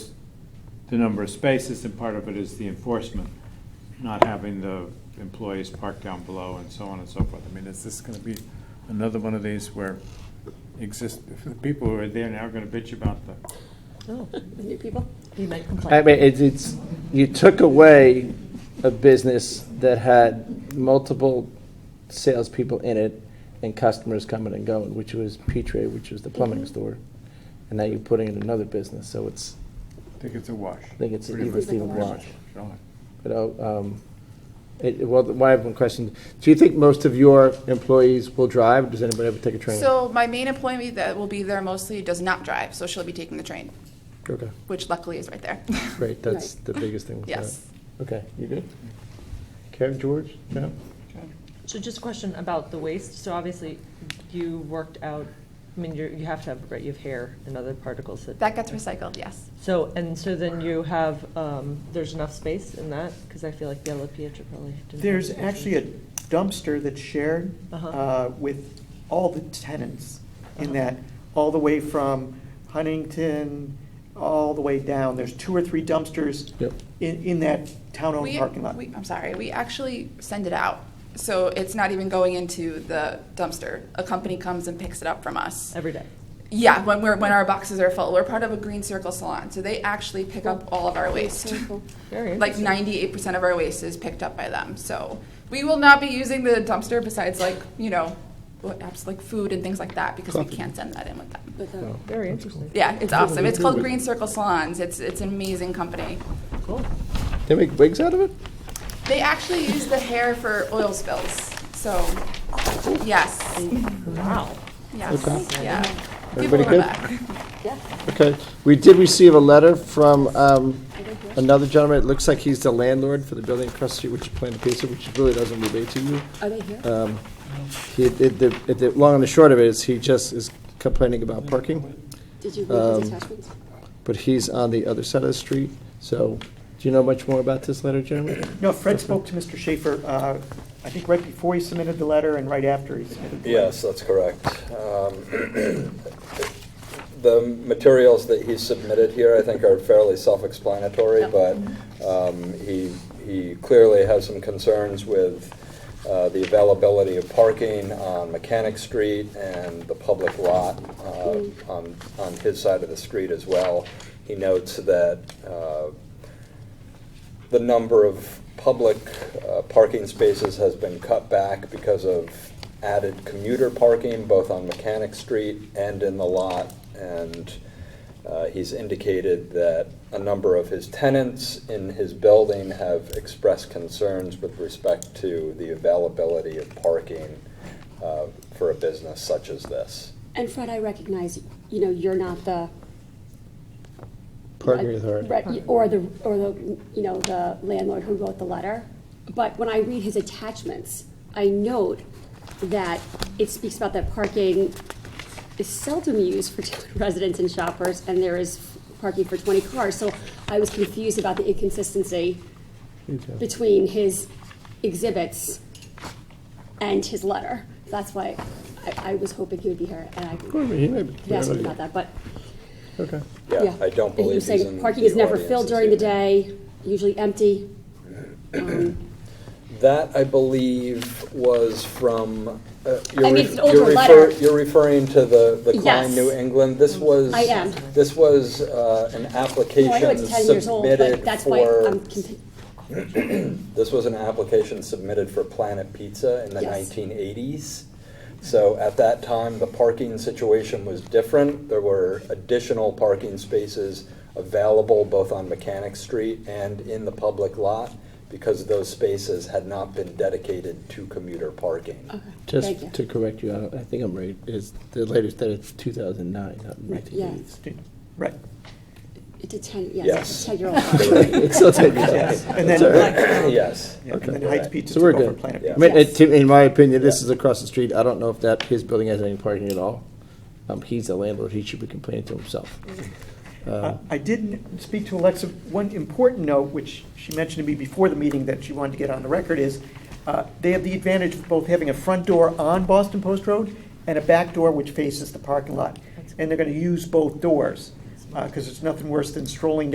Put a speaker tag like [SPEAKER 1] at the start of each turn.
[SPEAKER 1] the number of spaces, and part of it is the enforcement, not having the employees park down below and so on and so forth. I mean, is this gonna be another one of these where exist, the people who are there now are gonna bitch about the,
[SPEAKER 2] Oh, the new people? You might
[SPEAKER 3] I
[SPEAKER 2] complain.
[SPEAKER 3] mean, it's, it's, you took away a business that had multiple salespeople in it and customers coming and going, which was Petrie, which was the
[SPEAKER 4] Mm-hmm.
[SPEAKER 3] plumbing store. And now you're putting in another business, so it's,
[SPEAKER 1] I think it's a wash. I
[SPEAKER 3] think it's a-
[SPEAKER 2] it's even
[SPEAKER 3] wash. you know, um, it, it- well, why I have one question. Do you think most of your employees will drive? or Does anybody ever take a train?
[SPEAKER 4] So my main employee that will be there mostly does not drive, so she'll be taking the train,
[SPEAKER 3] Okay,
[SPEAKER 4] which luckily is right there.
[SPEAKER 3] great, that's the biggest thing. with that.
[SPEAKER 4] Yes.
[SPEAKER 3] Okay, you good? Karen, George, John?
[SPEAKER 2] So just a question about the waste. So obviously, you worked out, I mean, you're, you have to have, right, you have hair and other particles that.
[SPEAKER 4] That gets recycled, yes.
[SPEAKER 2] So, and so then you have, um, there's enough space in that? Because I feel like the La Pietra probably didn't. have
[SPEAKER 5] There's
[SPEAKER 2] space.
[SPEAKER 5] actually a dumpster that's shared
[SPEAKER 2] Uh-huh.
[SPEAKER 5] uh, with all the tenants in
[SPEAKER 2] Uh-huh.
[SPEAKER 5] that, all the way from Huntington, all the way down. There's two or three dumpsters
[SPEAKER 3] Yep.
[SPEAKER 5] in, in that town-owned
[SPEAKER 4] We-
[SPEAKER 5] parking lot.
[SPEAKER 4] we- I'm sorry, we actually send it out. So it's not even going into the dumpster. A company comes and picks it up from us.
[SPEAKER 2] Every day.
[SPEAKER 4] Yeah, when we're, when our boxes are full. We're part of a Green Circle Salon, so they actually pick up all of our waste.
[SPEAKER 2] Very
[SPEAKER 4] Like
[SPEAKER 2] interesting.
[SPEAKER 4] ninety-eight percent of our waste is picked up by them, so we will not be using the dumpster besides like, you know, what, apps like food and things like that, because we can't send that in with them.
[SPEAKER 3] No,
[SPEAKER 2] Very
[SPEAKER 3] that's cool.
[SPEAKER 2] interesting.
[SPEAKER 4] Yeah, it's awesome. It's called
[SPEAKER 3] Cool.
[SPEAKER 4] Green Circle Salons. It's, it's an amazing company.
[SPEAKER 2] Cool.
[SPEAKER 3] They make wigs out of it?
[SPEAKER 4] They actually use the hair for oil spills, so, yes,
[SPEAKER 2] Wow.
[SPEAKER 4] yes,
[SPEAKER 3] Okay.
[SPEAKER 4] yeah. People
[SPEAKER 3] Everybody
[SPEAKER 4] are
[SPEAKER 3] good?
[SPEAKER 4] back.
[SPEAKER 3] Okay, we did receive a letter from um, another gentleman, it looks like he's the landlord for the building across the street, which is Plan Pizza, which really doesn't relate to you.
[SPEAKER 6] Are they here?
[SPEAKER 3] Um, He, it- the, it- the, long and the short of it is he just is complaining about parking,
[SPEAKER 6] Did you read
[SPEAKER 3] um,
[SPEAKER 6] his attachments?
[SPEAKER 3] but he's on the other side of the street, so, do you know much more about this letter, Jeremy?
[SPEAKER 5] No, Fred spoke to Mr. Schaefer, uh, I think right before he submitted the letter and right after he submitted the letter.
[SPEAKER 7] Yes, that's correct. Um, The materials that he submitted here, I think, are fairly self-explanatory, but um, he he clearly has some concerns with uh, the availability of parking on Mechanic Street and the public lot uh, on on his side of the street as well. He notes that uh, the number of public uh, parking spaces has been cut back because of added commuter parking, both on Mechanic Street and in the lot. And uh, he's indicated that a number of his tenants in his building have expressed concerns with respect to the availability of parking uh, for a business such as this.
[SPEAKER 6] And Fred, I recognize, you know, you're not the.
[SPEAKER 3] Parking authority.
[SPEAKER 6] Right, Or the, or the, you know, the landlord who wrote the letter. But when I read his attachments, I note that it speaks about that parking is seldom used for town residents and shoppers, and there is parking for twenty cars. So I was confused about the inconsistency between his exhibits and his letter. That's why I, I was hoping he would be here, and I
[SPEAKER 3] He may be-
[SPEAKER 6] asked him about that, but.
[SPEAKER 3] Okay.
[SPEAKER 7] Yeah, I don't
[SPEAKER 6] And he
[SPEAKER 7] believe
[SPEAKER 6] was
[SPEAKER 7] he's
[SPEAKER 6] saying
[SPEAKER 7] in
[SPEAKER 6] Parking
[SPEAKER 7] the
[SPEAKER 6] is never
[SPEAKER 7] audience
[SPEAKER 6] filled
[SPEAKER 7] this
[SPEAKER 6] during the
[SPEAKER 7] evening.
[SPEAKER 6] day, usually empty. Um,
[SPEAKER 7] That, I believe, was from, uh,
[SPEAKER 6] I
[SPEAKER 7] you're
[SPEAKER 6] mean, it's an
[SPEAKER 7] ref-
[SPEAKER 6] older
[SPEAKER 7] you're refer-
[SPEAKER 6] letter.
[SPEAKER 7] you're referring to the the Klein
[SPEAKER 6] Yes. Mm-hmm.
[SPEAKER 7] New England? This was,
[SPEAKER 6] I am.
[SPEAKER 7] this was uh, an
[SPEAKER 6] Well, oh, I know
[SPEAKER 7] application
[SPEAKER 6] it's ten years old, but
[SPEAKER 7] submitted
[SPEAKER 6] that's why I'm,
[SPEAKER 7] for,
[SPEAKER 6] conti-
[SPEAKER 7] this was an application submitted for Planet Pizza in the
[SPEAKER 6] Yes.
[SPEAKER 7] 1980s. So at that time, the parking situation was different. There were additional parking spaces available both on Mechanic Street and in the public lot because those spaces had not been dedicated to commuter parking.
[SPEAKER 6] Oh, Thank you.
[SPEAKER 3] Just to correct you, I I think I'm right, is the latest that it's 2009, not
[SPEAKER 6] Right, yeah.
[SPEAKER 3] 1980s.
[SPEAKER 5] Right,
[SPEAKER 6] it's a ten, yes,
[SPEAKER 7] Yes.
[SPEAKER 6] it's a ten-year-old.
[SPEAKER 3] It's still 10 years old.
[SPEAKER 5] yes, and then, um,
[SPEAKER 7] Yes.
[SPEAKER 5] yeah, and then
[SPEAKER 7] Okay.
[SPEAKER 5] Heights Pizza
[SPEAKER 3] So we're
[SPEAKER 5] took over
[SPEAKER 3] good.
[SPEAKER 5] Planet
[SPEAKER 7] Yeah.
[SPEAKER 3] I mean,
[SPEAKER 6] Yes.
[SPEAKER 3] it- to- in my opinion, this
[SPEAKER 7] Yeah.
[SPEAKER 3] is across the street. I don't know if that, his building has any parking at all. Um, he's the landlord. He should be complaining to himself.
[SPEAKER 5] Uh,
[SPEAKER 3] Um,
[SPEAKER 5] I did speak to Alexa. One important note, which she mentioned to me before the meeting that she wanted to get on the record, is uh, they have the advantage of both having a front door on Boston Post Road and a back door which faces the parking lot. And they're going to use both doors, because there's uh, nothing worse than strolling